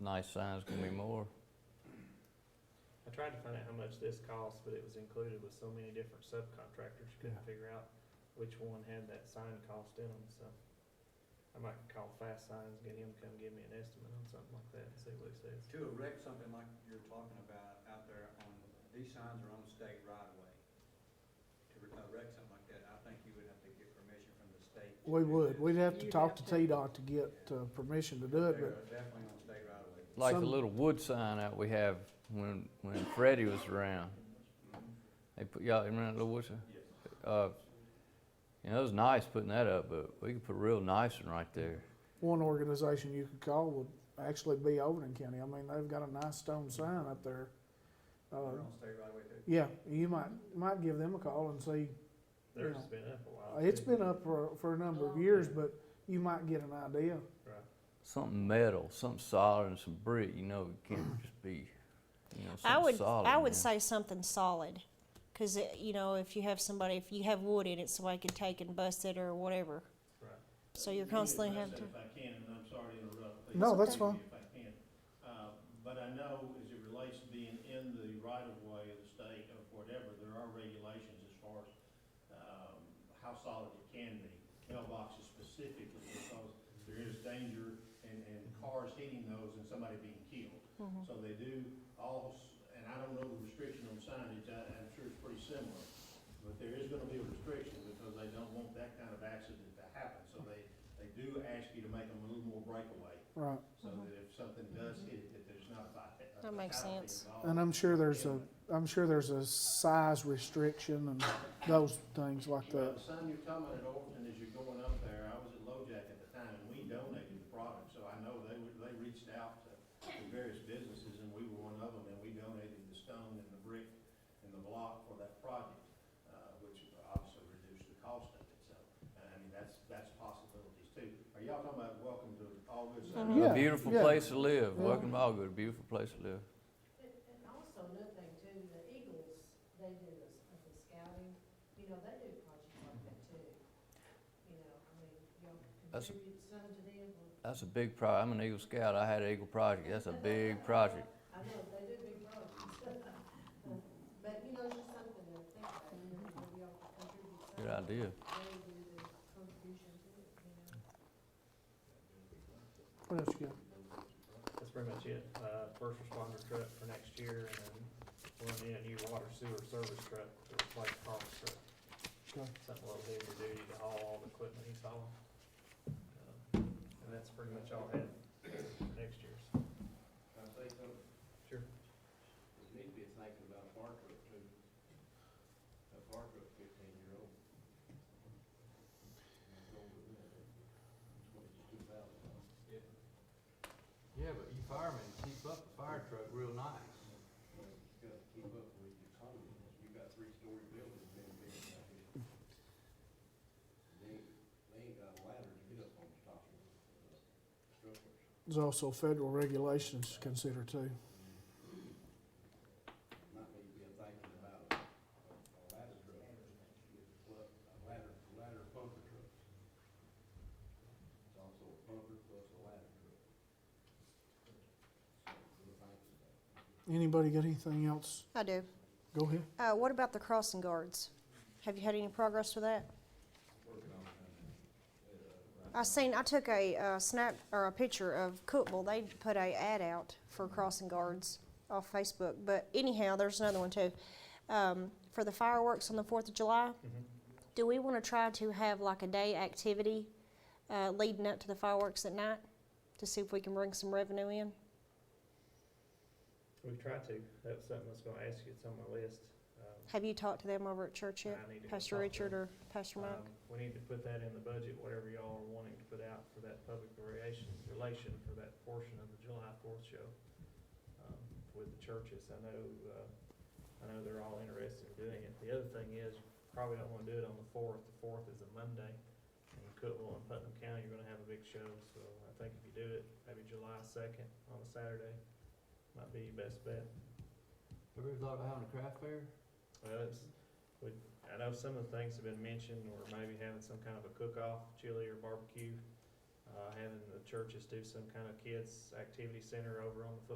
nice signs gonna be more. I tried to find out how much this costs, but it was included with so many different subcontractors, you couldn't Yeah. figure out which one had that sign cost in them, so. I might call Fast Signs, get him to come give me an estimate on something like that and see what he says. To erect something like you're talking about out there on, these signs are on state right of way. To re- erect something like that, I think you would have to get permission from the state. to We do would, this. we'd have to You'd talk to have to- TDOT to get uh, permission to do it, They're but Definitely on state right of way. Like the Some- little wood sign that we have when, when Freddie was around. They put, y'all remember that little wood sign? Yes. Uh, you know, it was nice putting that up, but we could put a real nice one right there. one organization you could call would actually be Overton County. I mean, they've got a nice stone sign up there. They're Uh, on state right of way too. yeah, you might, might give them a call and see. Theirs Yeah. has been up a while. Uh, It's too. been up for, for a number of Oh. years, but you might get an idea. Right. Something metal, something solid and some brick, you know, it can't just be, you know, I something would, solid. I would man. say something solid, because you know, if you have somebody, if you have wood in it, somebody could take and bust it or whatever. Right. So you're constantly having to. If I can, and I'm sorry to interrupt. please No, that's continue fine. If I can. Uh, But I know as it relates to being in the right of way of the state or whatever, there are regulations as far as um, how solid it can be. Mailboxes specifically, because there is danger and, and cars hitting those and somebody being killed. Mhm. So they do all, s- and I don't know the restriction on signage, I, I'm sure it's pretty similar. But there is gonna be a restriction because they don't want that kind of accident to happen, so they, they do ask you to make them a little more breakaway, Right. so that if something does hit it, that there's not a fi- a Mm-hmm. That makes fatality sense. involved. And I'm sure there's a, I'm sure there's a size restriction and those things like Well, that. The sign you're talking about at Overton, as you're going up there, I was at LoJack at the time, and we donated the product, so I know they, were- they reached out to to various businesses, and we were one of them, and we donated the stone and the brick and the block for that project, uh, which obviously reduced the cost of it, so, I mean, that's, that's possibilities too. Are y'all talking about welcome to all good Mhm. Saturday? A Yeah, beautiful yeah. place to live, Yeah. welcome to Allgood, a beautiful place to live. And, and also another thing too, the Eagles, they do the, s- the scouting, you know, they do projects like that too. You know, I mean, y'all That's- contribute some to them, or- That's a big pro, I'm an Eagle Scout, I had an Eagle Project, that's a big project. I know, they do big projects. But, you know, it's just something to think about, you know, maybe y'all could contribute some. Good idea. They do the contribution to it, you know. What else you got? That's pretty much it. Uh, first responder truck for next year and then we'll need a new water sewer service truck to replace Carl's truck. Okay. Something a little heavier duty to haul all the equipment he's hauling. Um, And that's pretty much all I had for next year's. Can I say something? Sure. You need to be thinking about a fire truck too. A fire truck fifteen year old. Yeah, but you firemen keep up the fire truck real nice. You gotta keep up with your economy, you got three-story buildings being built out here. They, they ain't got a ladder to get up on the top of the structures. There's also federal regulations to consider too. Might be be thinking about a a ladder truck, plus a ladder, ladder pumper truck. It's also a pumper plus a ladder truck. So, we're thinking about it. Anybody got anything else? I do. Go ahead. Uh, what about the crossing guards? Have you had any progress with that? I seen, I took a uh, snap, or a picture of Cookville, they put a ad out for crossing guards off Facebook, but anyhow, there's another one too. Um, for the fireworks on the Fourth of July, Mm-hmm. do we wanna try to have like a day activity, uh, leading up to the fireworks at night? To see if we can bring some revenue in? We've tried to. That was something I was gonna ask you. It's on my list. Um, Have you talked to them over at church and yet? I need to go Pastor talk to Richard them. or Pastor Mike? Um, We need to put that in the budget, whatever y'all are wanting to put out for that public relation, relation for that portion of the July fourth show, um, with the churches. I know, uh, I know they're all interested in doing it. The other thing is, probably don't wanna do it on the fourth. The fourth is a Monday. In Cookville and Putnam County, you're gonna have a big show, so I think if you do it, maybe July second on a Saturday, might be your best bet. Ever thought about having a craft fair? Well, it's, we, I know some of the things have been mentioned, or maybe having some kind of a cook-off, chili or barbecue. uh, having the churches do some kind of kids' activity center over on the football